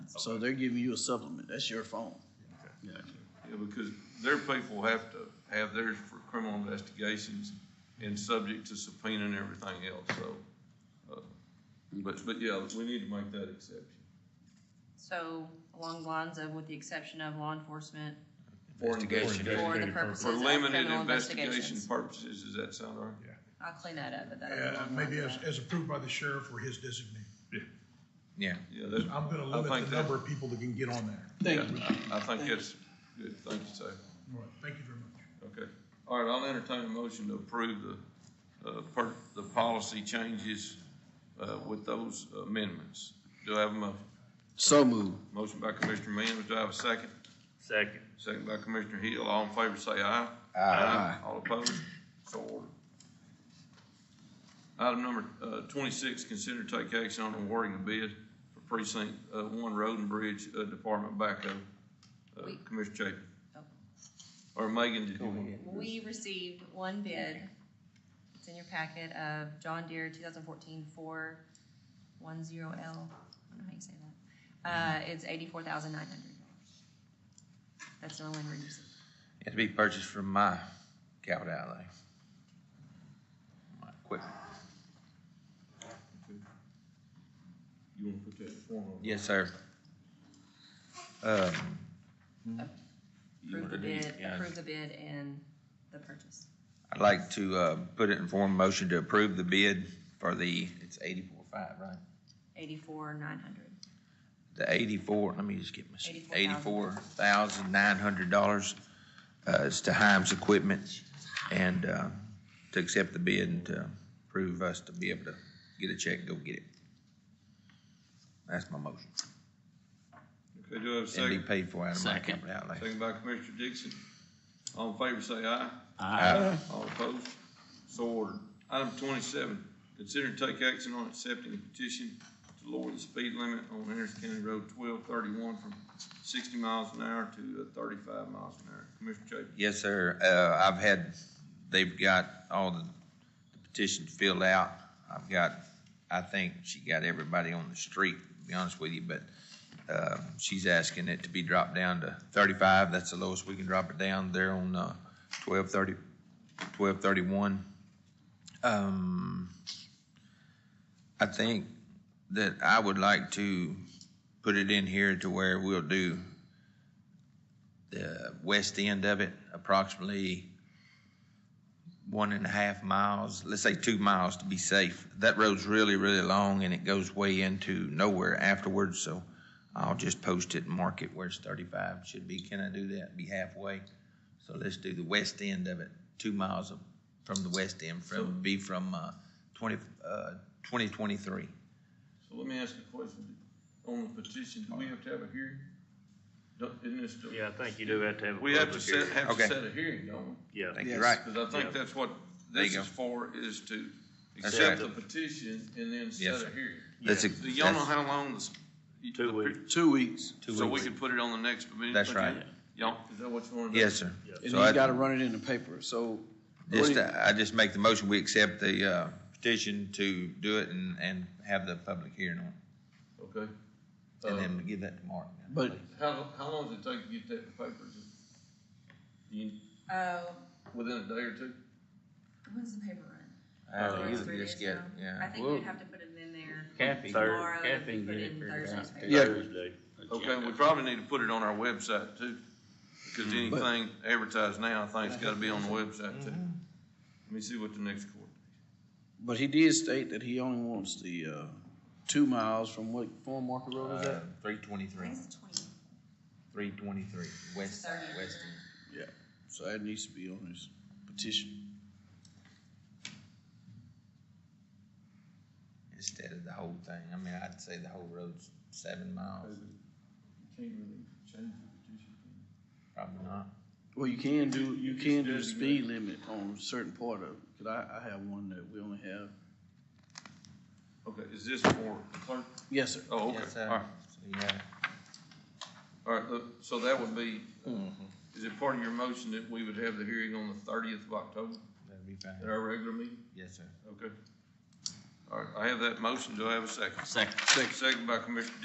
So they're giving you a supplement. That's your phone. Yeah. Yeah, because their people have to have theirs for criminal investigations and subject to subpoena and everything else, so. uh, But, but yeah, we need to make that exception. So along the lines of, with the exception of law enforcement Investigation. for the purposes For of limited criminal investigation investigations. purposes, does that sound all right? I'll clean that up, but that. Uh, maybe as, as approved by the sheriff or his designee. Yeah. Yeah, that's, I'm gonna I limit think the that- number of people that can get on there. yeah, Thank you. I I think that's good, thank you, sir. All right, Thank you very much. Okay, all right, I'll entertain a motion to approve the, uh, per, the policy changes, uh, with those amendments. Do I have a motion? So moved. Motion by Commissioner Mims, do I have a second? Second. Second by Commissioner Hill, all in favor say aye. All opposed, so ordered. Item number, uh, twenty-six, consider to take action on awarding a bid for precinct, uh, one road and bridge, uh, department backhoe. Uh, We- Commissioner Chapin. Oh. Or Megan, did you want? We received one bid, it's in your packet, of John Deere 2014 410L. I don't know how you say that. Uh, It's $84,900. That's the only one we're using. It's to be purchased from my capital outlay. My equipment. You wanna put that in form of? Yes, sir. Um, you Approve wanna the do- bid, yeah. approve the bid and the purchase. I'd like to, uh, put it in form of motion to approve the bid for the, it's eighty-four five, right? 84,900. The eighty-four, let me just get my, eighty-four 84,000. thousand nine hundred dollars, uh, is to Himes Equipment. And, uh, to accept the bid and to prove us to be able to get a check and go get it. That's my motion. Okay, do I have a And be second? paid for out of my Second. capital outlay. Second by Commissioner Dixon, all in favor say aye. Uh, All opposed? So ordered. Item twenty-seven, consider and take action on accepting a petition to lower the speed limit on Harris County Road twelve thirty-one from sixty miles an hour to uh, thirty-five miles an hour. Commissioner Chapin, Yes, sir. Uh, I've had, they've got all the petitions filled out. I've got, I think she got everybody on the street, to be honest with you, but, uh, she's asking it to be dropped down to thirty-five. That's the lowest we can drop it down there on, uh, twelve thirty, twelve thirty-one. Um, I think that I would like to put it in here to where we'll do the west end of it, approximately one and a half miles, let's say two miles to be safe. That road's really, really long and it goes way into nowhere afterwards, so I'll just post it and mark it where it's thirty-five should be. Can I do that? Be halfway? So let's do the west end of it, two miles of- from the west end, from, be from, uh, twenty, uh, twenty twenty-three. so let me ask you a question. On the petition, do we have to have a hearing? Don't- Isn't this still? Yeah, I think you do have to have a We have to public set, hearing. have to Okay. set a hearing, don't we? I Yeah. think you're Yes. right. Because I think Yeah. that's what There you this go. is for, is to That's accept the right. petition and then Yes, set a sir. hearing. That's a- Do y'all know that's- how long this? Two the- weeks. Two weeks. Two So we weeks. could put it on the next meeting? That's agenda? right. Y'all, is that what you want to do? Yes, sir. And So then I- you gotta run it in the paper. So. what Just, do you- uh, I just make the motion, we accept the uh, petition to do it and, and have the public hearing on it. Okay. And Uh, then we give that to Mark. But How, how long does it take to get that in paper? Just- You, Oh, within a day or two? when's the paper run? Uh, Or you three just days get- now? I yeah. think Well- you'd have to put it in there. Kathy, Tomorrow, Third- Kathy can put get in it figured out Thursday's Yeah. Thursday. Okay, we probably need to put it on our website too, because Mm-hmm. anything advertised now, I think it's gotta be on the website too. Let me see what the next court. But he did state that he only wants the, uh, two miles from what, Four Market Road is Uh, that? Uh, Three twenty-three, It's the 20th. three twenty-three, west, Thirty. west. Yeah. So that needs to be on his petition. Instead of the whole thing, I mean, I'd say the whole road's seven miles, Can't really change the petition. probably not. Well, you can do, you can do the speed limit on a certain part of it. Cause I, I have one that we only have. Okay, is this for clerk? Yes, sir. Oh, okay, Yes, sir. all right, So, yeah. all right, look, so that would be, is it part of your motion that we would have the hearing on the thirtieth of October that'd be at fine. our regular meeting? Yes, sir. Okay. All right, I have that motion. Do I have a second? Second. Second by Commissioner